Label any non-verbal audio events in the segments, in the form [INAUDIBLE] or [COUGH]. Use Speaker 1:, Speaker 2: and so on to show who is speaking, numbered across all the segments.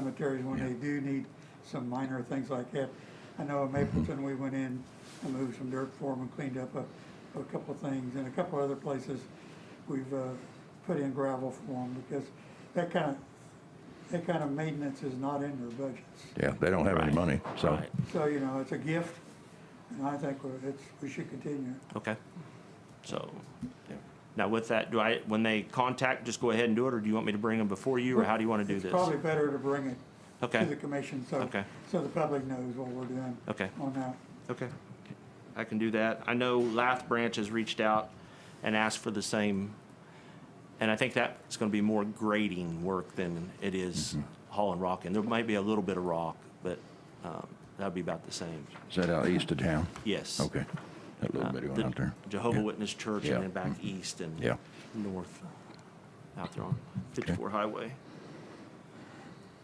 Speaker 1: cemeteries when they do need some minor things like that. I know in Mapleton, we went in and moved some dirt for them and cleaned up a, a couple of things. And a couple other places, we've, uh, put in gravel for them because that kind of, that kind of maintenance is not in their budgets.
Speaker 2: Yeah, they don't have any
Speaker 3: Right,
Speaker 2: money, so.
Speaker 3: right.
Speaker 1: So, you know, it's a gift and I think we're- it's, we should continue.
Speaker 3: Okay. So, now with that, do I, when they contact, just go ahead and do it, or do you want me to bring them before you, or how do you want to do
Speaker 1: It's
Speaker 3: this?
Speaker 1: Probably better to bring it to
Speaker 3: Okay.
Speaker 1: the commission, so,
Speaker 3: Okay.
Speaker 1: so the public knows what we're doing
Speaker 3: Okay.
Speaker 1: on that.
Speaker 3: Okay. I can do that. I know Lath Branch has reached out and asked for the same, and I think that's going to be more grading work than it is
Speaker 2: Mm-hmm.
Speaker 3: hauling rock in. There might be a little bit of rock, but um, that'd be about the same.
Speaker 2: Is that out east of town?
Speaker 3: Yes.
Speaker 2: Okay. That
Speaker 3: Uh,
Speaker 2: little bitty one
Speaker 3: the
Speaker 2: out there.
Speaker 3: Jehovah
Speaker 2: Yeah.
Speaker 3: Witness Church
Speaker 2: Yeah. Mm-hmm.
Speaker 3: and then back east and
Speaker 2: Yeah.
Speaker 3: north out there on 54 Highway.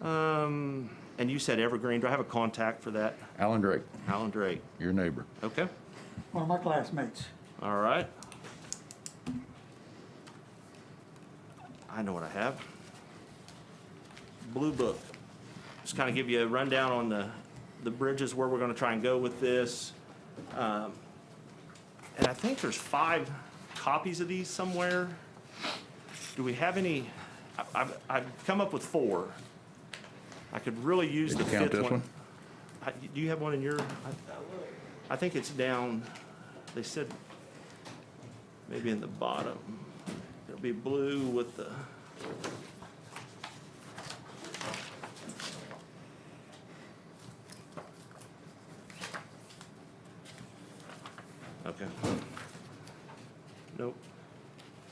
Speaker 3: Um, and you said Evergreen. Do I have a contact for that?
Speaker 2: Alan Drake,
Speaker 3: Alan Drake.
Speaker 2: your neighbor.
Speaker 3: Okay.
Speaker 1: One of my classmates.
Speaker 3: All right. I know what I have. Blue Book. Just kind of give you a rundown on the, the bridges, where we're going to try and go with this. Um, And I think there's five copies of these somewhere. Do we have any? I- I've, I've come up with four. I could really use
Speaker 2: Did
Speaker 3: the
Speaker 2: you
Speaker 3: fifth one.
Speaker 2: count this one?
Speaker 3: I- Do you have one in your? I- I think it's down, they said, maybe in the bottom. It'll be blue with the. Okay. Nope.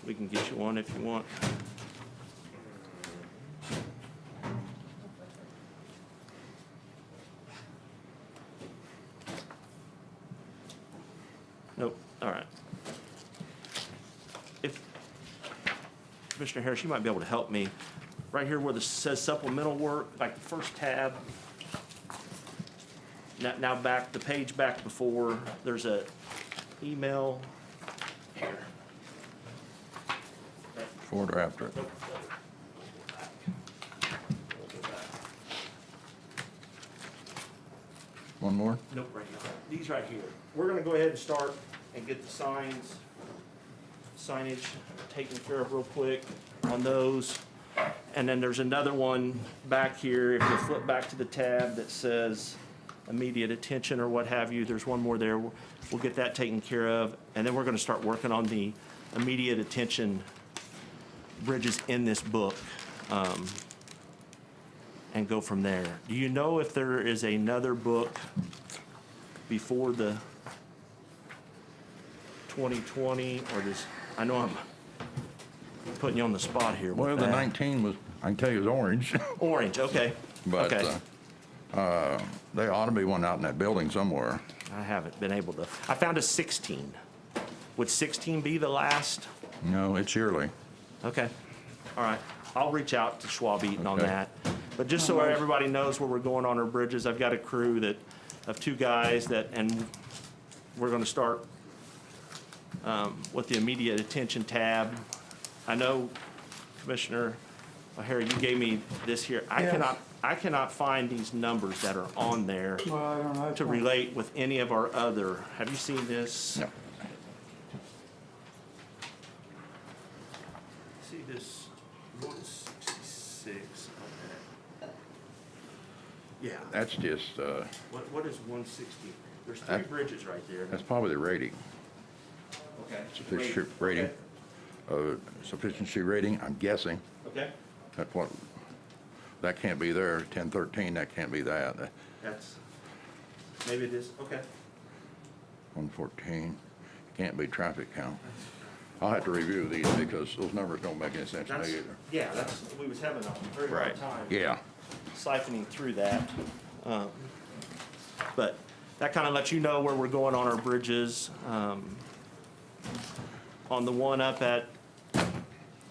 Speaker 3: We can get you one if you want. Nope, all right. If, Commissioner Harris, you might be able to help me. Right here where this says supplemental work, like the first tab. Now, now back, the page back before, there's a email. Here.
Speaker 2: Before or after?
Speaker 3: Nope.
Speaker 2: One more?
Speaker 3: Nope, right here. These right here. We're gonna go ahead and start and get the signs, signage taken care of real quick on those. And then there's another one back here, if you flip back to the tab that says immediate attention or what have you, there's one more there. We'll we'll get that taken care of, and then we're gonna start working on the immediate attention bridges in this book. um, And go from there. Do you know if there is another book before the 2020, or does, I know I'm putting you on the spot here with
Speaker 2: Well, the
Speaker 3: that.
Speaker 2: 19 was, I can tell you it was orange, [LAUGHS]
Speaker 3: Orange, okay.
Speaker 2: but
Speaker 3: Okay.
Speaker 2: uh, uh, there ought to be one out in that building somewhere.
Speaker 3: I haven't been able to, I found a 16. Would 16 be the last?
Speaker 2: No, it's yearly.
Speaker 3: Okay, all right. I'll reach out to Schwab Eaton on
Speaker 2: Okay.
Speaker 3: that. But just so everybody knows where we're going on our bridges, I've got a crew that, of two guys that, and we're gonna start um, with the immediate attention tab. I know Commissioner O'Hara, you gave me this here. I
Speaker 1: Yes.
Speaker 3: cannot, I cannot find these numbers that are on there.
Speaker 1: Well, I don't know. that's
Speaker 3: to
Speaker 1: one-
Speaker 3: relate with any of our other, have you seen this?
Speaker 2: No.
Speaker 3: See this one sixty-six Yeah,
Speaker 2: That's just, uh,
Speaker 3: what, what is one sixty? There's three
Speaker 2: That-
Speaker 3: bridges right there.
Speaker 2: that's probably the rating,
Speaker 3: Okay.
Speaker 2: sufficiency rating, uh, sufficiency rating, I'm guessing.
Speaker 3: Okay,
Speaker 2: That's what, that can't be there, 1013, that can't be that, That-
Speaker 3: that's, maybe it is, okay.
Speaker 2: 114, can't be traffic count. I'll have to review these because those numbers don't make any sense to
Speaker 3: That's,
Speaker 2: me either.
Speaker 3: yeah, that's, we was having a very hard time.
Speaker 2: Yeah,
Speaker 3: siphoning through that. Um, But that kind of lets you know where we're going on our bridges. Um, On the one up at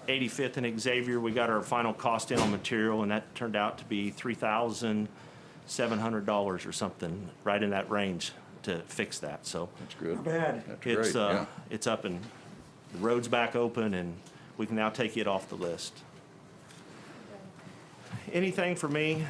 Speaker 3: 85th and Xavier, we got our final cost in on material, and that turned out to be $3,700 or something, right in that range to fix that, so.
Speaker 2: that's good.
Speaker 1: Not bad.
Speaker 2: That's great,
Speaker 3: It's, uh,
Speaker 2: yeah.
Speaker 3: it's up and, the road's back open and we can now take it off the list. anything for me.